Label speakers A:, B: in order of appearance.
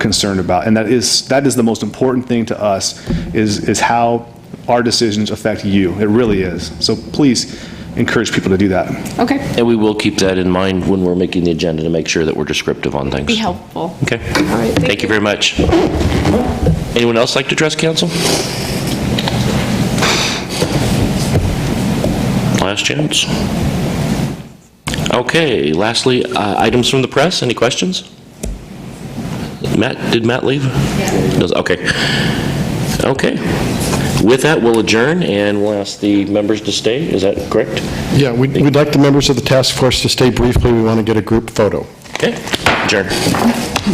A: concerned about. And that is, that is the most important thing to us, is, is how our decisions affect you. It really is. So please encourage people to do that.
B: Okay,
C: And we will keep that in mind when we're making the agenda to make sure that we're descriptive on things.
B: be helpful.
C: Okay.
B: All right, thank
C: Thank you very much. Anyone else like to address council? Last chance. Okay, lastly, uh, items from the press, any questions? Matt, did Matt leave? Yeah. Okay. Okay. With that, we'll adjourn, and we'll ask the members to stay, is that correct?
D: Yeah, we'd we'd like the members of the task force to stay briefly. We want to get a group photo.
C: Okay, adjourn.